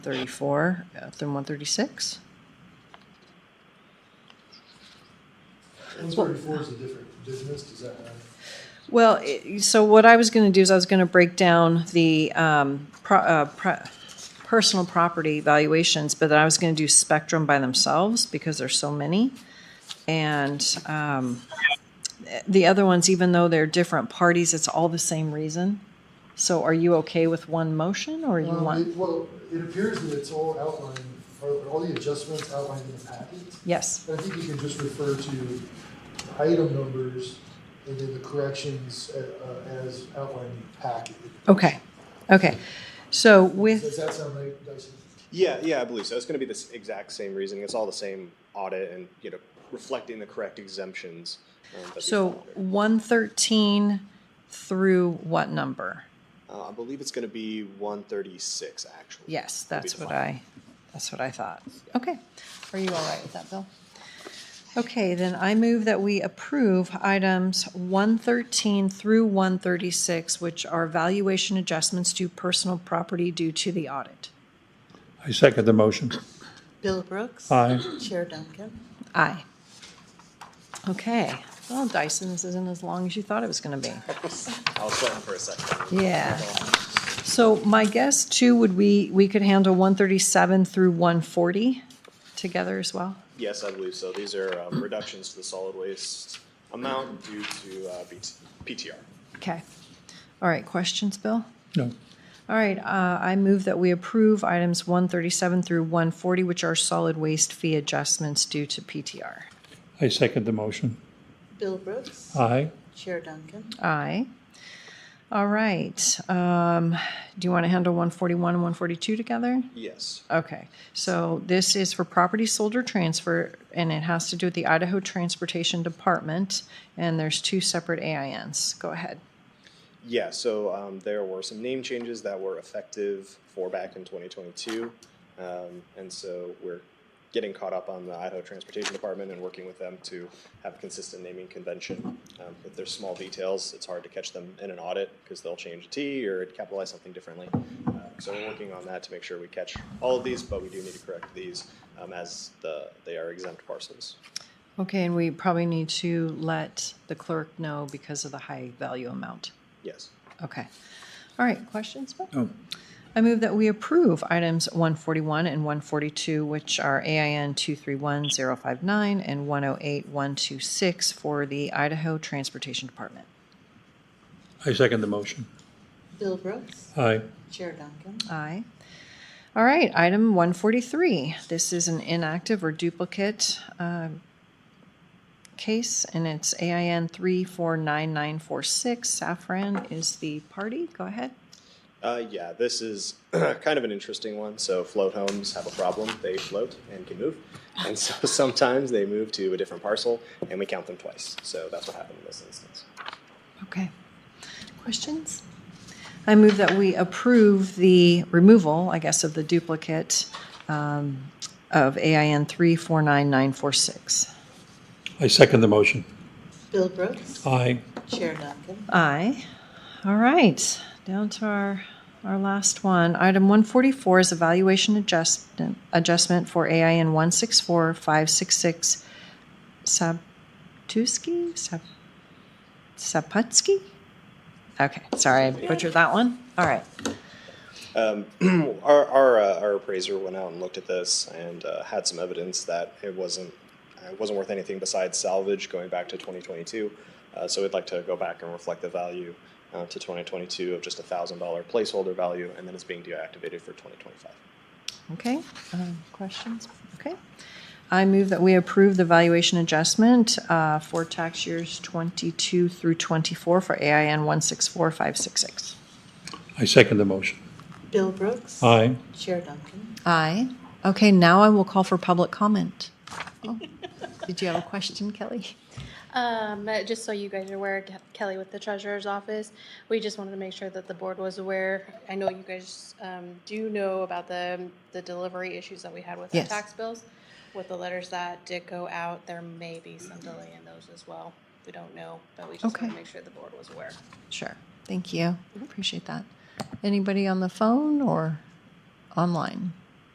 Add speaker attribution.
Speaker 1: 34, up through 136?
Speaker 2: One thirty-four is a different business, does that matter?
Speaker 1: Well, i- so what I was going to do is I was going to break down the um, pro- uh, pro- personal property valuations, but then I was going to do spectrum by themselves because there's so many. And um, the other ones, even though they're different parties, it's all the same reason. So are you okay with one motion or you
Speaker 2: Um,
Speaker 1: want?
Speaker 2: it- Well, it appears that it's all outlined, or all the adjustments outlined in the packet.
Speaker 1: Yes,
Speaker 2: But I think you can just refer to item numbers and then the corrections uh, uh, as outlined in the packet.
Speaker 1: okay, okay. So with.
Speaker 2: Does that sound right, Dyson?
Speaker 3: Yeah, yeah, I believe so. It's going to be the s- exact same reasoning. It's all the same audit and, you know, reflecting the correct exemptions. um, that we
Speaker 1: So
Speaker 3: found.
Speaker 1: one thirteen through what number?
Speaker 3: Uh, I believe it's going to be one thirty-six, actually.
Speaker 1: Yes,
Speaker 3: Will be
Speaker 1: that's
Speaker 3: the
Speaker 1: what
Speaker 3: final.
Speaker 1: I, that's what I thought. Okay. Are you all right with that, Bill? Okay, then I move that we approve items one thirteen through one thirty-six, which are valuation adjustments to personal property due to the audit.
Speaker 4: I second the motion.
Speaker 5: Bill Brooks.
Speaker 4: Aye.
Speaker 5: Chair Duncan.
Speaker 1: Aye. Okay. Well, Dyson, this isn't as long as you thought it was gonna be.
Speaker 3: I was sweating for a second.
Speaker 1: Yeah. So my guess too would we, we could handle one thirty-seven through one forty together as well?
Speaker 3: Yes, I believe so. These are um, reductions to the solid waste amount due to uh, BT- PTR.
Speaker 1: Okay. All right, questions, Bill?
Speaker 4: No,
Speaker 1: All right, uh, I move that we approve items one thirty-seven through one forty, which are solid waste fee adjustments due to PTR.
Speaker 4: I second the motion.
Speaker 5: Bill Brooks.
Speaker 4: Aye.
Speaker 5: Chair Duncan.
Speaker 1: Aye. All right, um, do you want to handle one forty-one and one forty-two together?
Speaker 3: Yes.
Speaker 1: Okay, so this is for property sold or transfer, and it has to do with the Idaho Transportation Department, and there's two separate AINs. Go ahead.
Speaker 3: Yeah, so um, there were some name changes that were effective for back in 2022. Um, and so we're getting caught up on the Idaho Transportation Department and working with them to have a consistent naming convention. Um, if there's small details, it's hard to catch them in an audit because they'll change a T or capitalize something differently. Uh, so we're working on that to make sure we catch all of these, but we do need to correct these um, as the, they are exempt parcels.
Speaker 1: Okay, and we probably need to let the clerk know because of the high value amount.
Speaker 3: Yes.
Speaker 1: Okay. All right, questions? Bill?
Speaker 4: No,
Speaker 1: I move that we approve items 141 and 142, which are AIN 231059 and 108126 for the Idaho Transportation Department.
Speaker 4: I second the motion.
Speaker 5: Bill Brooks.
Speaker 4: Aye.
Speaker 5: Chair Duncan.
Speaker 1: Aye. All right, item one forty-three. This is an inactive or duplicate um, case, and it's AIN three four nine nine four six. Safran is the party. Go ahead.
Speaker 3: Uh, yeah, this is kind of an interesting one. So float homes have a problem. They float and can move. And so sometimes they move to a different parcel and we count them twice. So that's what happened in this instance.
Speaker 1: Okay. Questions? I move that we approve the removal, I guess, of the duplicate um, of AIN three four nine nine four six.
Speaker 4: I second the motion.
Speaker 5: Bill Brooks.
Speaker 4: Aye.
Speaker 5: Chair Duncan.
Speaker 1: Aye. All right, down to our, our last one. Item 144 is evaluation adjustment, adjustment for AIN 164566 Sabtuski? Sap- Saputsky? Okay, sorry, I butchered that one. All right.
Speaker 3: Um, our our, uh, our appraiser went out and looked at this and uh, had some evidence that it wasn't uh, it wasn't worth anything besides salvage going back to 2022. Uh, so we'd like to go back and reflect the value uh, to 2022 of just a thousand dollar placeholder value, and then it's being deactivated for 2025.
Speaker 1: Okay, um, questions? Okay. I move that we approve the valuation adjustment uh, for tax years 22 through 24 for AIN 164566.
Speaker 4: I second the motion.
Speaker 5: Bill Brooks.
Speaker 4: Aye.
Speaker 5: Chair Duncan.
Speaker 1: Aye. Okay, now I will call for public comment. Oh, Did you have a question, Kelly?
Speaker 6: Um, uh, just so you guys are aware, Ke- Kelly with the treasurer's office, we just wanted to make sure that the board was aware. I know you guys, um, do know about the, the delivery issues that we had with the
Speaker 1: Yes.
Speaker 6: tax bills. With the letters that did go out, there may be some delay in those as well. We don't know, but we just want
Speaker 1: Okay.
Speaker 6: to make sure the board was aware.
Speaker 1: Sure. Thank you. Appreciate that. Anybody on the phone or online?